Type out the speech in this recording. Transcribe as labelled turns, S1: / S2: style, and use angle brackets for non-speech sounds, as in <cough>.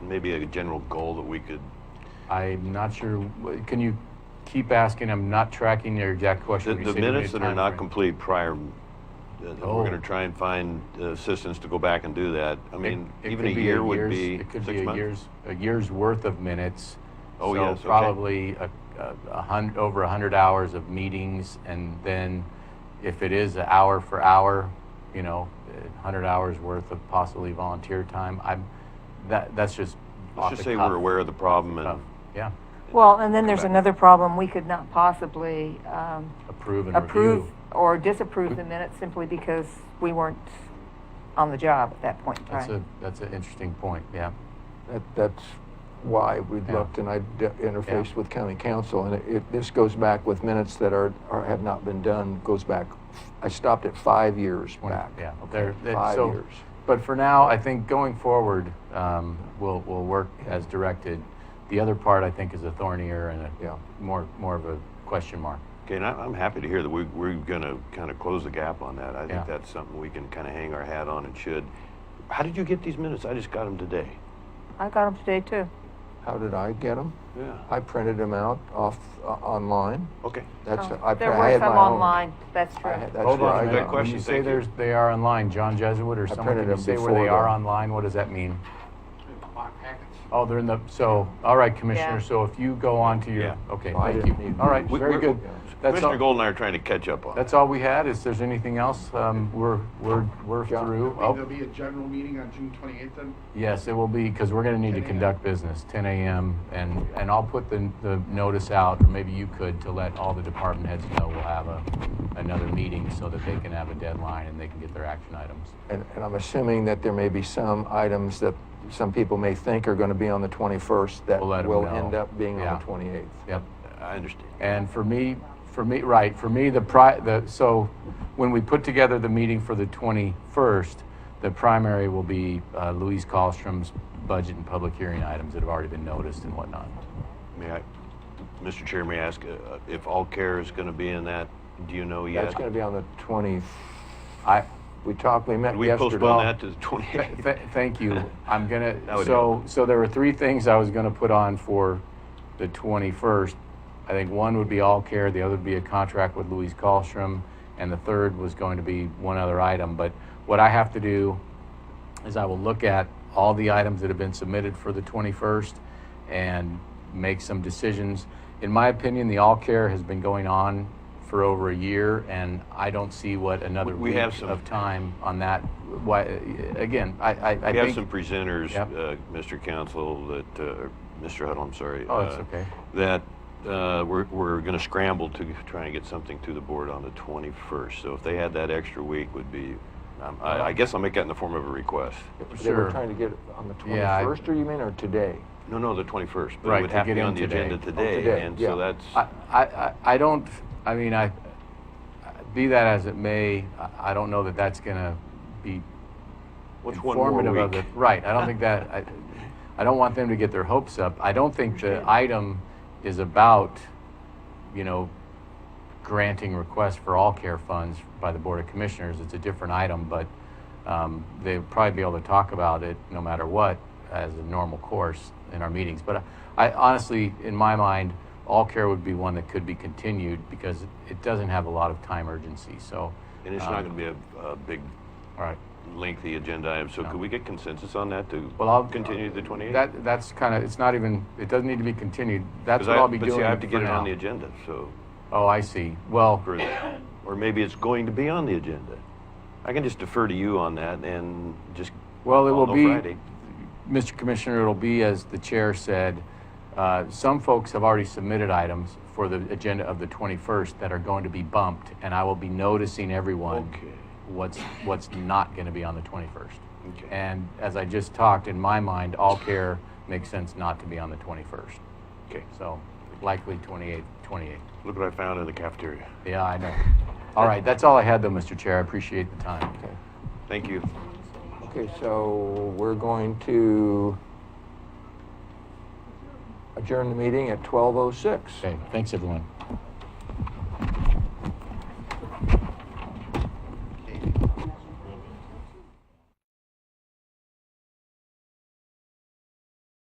S1: maybe a general goal that we could,
S2: I'm not sure, wh- can you keep asking? I'm not tracking your exact
S1: the,
S2: question. when you
S1: the
S2: say you made
S1: minutes that are
S2: time
S1: not
S2: frame.
S1: complete prior, uh, we're
S2: Oh.
S1: gonna try and find uh, assistance to go back and do that. I
S2: It-
S1: mean,
S2: it
S1: even a
S2: could be
S1: year would
S2: year's-
S1: be
S2: It could
S1: six
S2: be a
S1: months.
S2: year's, a year's worth of minutes.
S1: Oh,
S2: So
S1: yes, okay.
S2: Probably a, a- a hun, over a hundred hours of meetings, and then if it is an hour for hour, you know, a hundred hours worth of possibly volunteer time, I'm, that, that's just off
S1: Let's just
S2: the
S1: say
S2: cuff
S1: we're aware of the problem
S2: stuff.
S1: and
S2: Yeah,
S3: Well, and then there's
S1: Correct.
S3: another problem, we could not possibly um,
S2: approve and
S3: approve
S2: review.
S3: or
S4: <clears throat>
S3: disapprove the minutes simply because we weren't on the job at that point in
S2: That's a,
S3: time.
S2: that's an interesting point, yeah.
S4: That, that's why we'd
S2: Yeah.
S4: looked, and I interfaced with county council, and it- it, this goes back with minutes that are, are, have not been done, goes back, I stopped at five years
S2: Twenty-
S4: back.
S2: yeah,
S4: Okay,
S2: there- that-
S4: Five
S2: so-
S4: years.
S2: But for now, I think going forward, um, we'll, we'll work as directed. The other part, I think, is a thornier and
S4: Yeah.
S2: a more, more of a question mark.
S1: Okay, and I- I'm happy to hear that we, we're gonna kind of close the gap on that. I
S2: Yeah.
S1: think that's something we can kind of hang our hat on and should. How did you get these minutes? I just got them today.
S3: I got them today too.
S4: How did I get them?
S1: Yeah,
S4: I printed them out off, uh, online.
S1: okay.
S4: That's,
S3: Oh,
S4: I,
S3: There
S4: I
S3: were
S4: had my
S3: some
S4: own.
S3: online, that's
S4: I
S3: true.
S4: had- That's
S2: Hold
S4: where
S2: on a
S4: I
S1: Good
S2: minute.
S4: got
S2: When
S4: them.
S1: question,
S2: you say
S1: thank you.
S2: there's, they are online, John Jesuit or someone,
S4: printed
S2: can you
S4: them
S2: say where
S4: before
S2: they are
S4: the-
S2: online? What does that mean? Oh, they're in the, so, all right, Commissioner,
S3: Yeah.
S2: so if you go on to your,
S1: Yeah.
S2: okay,
S4: No, I
S2: thank
S4: didn't
S2: you.
S4: need
S2: All right,
S4: these.
S2: very
S1: We're-
S2: good. That's
S1: Commissioner
S2: all,
S1: Gold and I are trying to catch up on.
S2: that's all we had. Is there's anything else? Um, we're, we're, we're
S4: John.
S2: through.
S5: I mean,
S2: Oh,
S5: There'll be a general meeting on June twenty-eighth then?
S2: Yes, it will be, because we're gonna need to
S5: 10 a.m.
S2: conduct business, ten AM, and, and I'll put the, the notice out, or maybe you could, to let all the department heads know we'll have a, another meeting so that they can have a deadline and they can get their action items.
S4: And, and I'm assuming that there may be some items that some people may think are gonna be on the 21st that
S2: We'll let 'em
S4: will
S2: know.
S4: end up being
S2: Yeah.
S4: on the 28th.
S2: Yep.
S1: I understand.
S2: And for me, for me, right, for me, the pri, the, so when we put together the meeting for the 21st, the primary will be uh, Louise Colstrom's budget and public hearing items that have already been noticed and whatnot.
S1: May I, Mr. Chair, may I ask uh, if All Care is gonna be in that? Do you know yet?
S4: That's gonna be on the 20,
S2: I,
S4: we talked, we met
S1: Could we
S4: yesterday.
S1: postpone that to the
S2: <laughs> Th-
S1: 28th?
S2: th- Thank you. I'm gonna,
S1: <laughs> That would
S2: so, so there were three things I was gonna put on for the 21st. I think one would be all care, the other would be a contract with Louise Colstrom, and the third was going to be one other item. But what I have to do is I will look at all the items that have been submitted for the 21st and make some decisions. In my opinion, the all care has been going on for over a year, and I don't see what another
S1: We- we
S2: week
S1: have some-
S2: of time on that. Why, again, I, I, I
S1: We have
S2: think-
S1: some presenters,
S2: Yep.
S1: uh, Mr. Council, that, uh, Mr. Huddle, I'm sorry.
S2: Oh, it's
S1: uh,
S2: okay.
S1: That uh, we're, we're going to scramble to try and get something to the board on the 21st. So if they had that extra week would be, um, I I guess I'll make that in the form of a request.
S4: They
S2: Sure.
S4: were trying to get it on the
S2: Yeah, I-
S4: 21st, or you mean, or today?
S1: No, no, the 21st. But
S2: Right,
S1: it would
S2: to
S1: have to
S2: get
S1: be
S2: in
S1: on the
S2: today.
S1: agenda
S2: Oh,
S1: today.
S4: today,
S1: And
S4: yeah.
S1: so that's,
S2: I, I, I- I don't, I mean, I, be that as it may, I, I don't know that that's gonna be
S1: what's one
S2: informative
S1: more
S2: of
S1: week?
S2: it. Right, I don't think that, I, I don't want them to get their hopes up. I don't think the item is about, you know, granting requests for all care funds by the Board of Commissioners. It's a different item, but um, they'll probably be able to talk about it no matter what as a normal course in our meetings. But I honestly, in my mind, all care would be one that could be continued because it doesn't have a lot of time urgency, so. um,
S1: And it's
S2: Uh,
S1: not going to be a a big
S2: All right.
S1: lengthy agenda item. So could we get consensus on that to
S2: Well, I'll-
S1: continue the 28th?
S2: That, that's kind of, it's not even, it doesn't need to be continued. That's
S1: 'Cause
S2: what
S1: I-
S2: I'll be
S1: but
S2: doing
S1: see, I have to
S2: for
S1: get it
S2: now.
S1: on the agenda, so,
S2: Oh, I see. Well,
S1: for the- or maybe it's going to be on the agenda. I can just defer to you on that and just.
S2: well, it
S1: I'll
S2: will
S1: know
S2: be,
S1: Friday.
S2: Mr. Commissioner, it'll be, as the chair said, uh, some folks have already submitted items for the agenda of the 21st that are going to be bumped, and I will be noticing everyone
S1: Okay.
S2: what's, what's not going to be on the 21st.
S1: Okay.
S2: And as I just talked, in my mind, all care makes sense not to be on the 21st.
S1: Okay,
S2: So likely 28th, 28th.
S1: look what I found in the cafeteria.
S2: Yeah, I know. All right, that's all I had though, Mr. Chair. I appreciate the time.
S4: Okay.
S1: Thank you.
S4: Okay, so we're going to adjourn the meeting at 12:06.
S2: Okay, thanks everyone.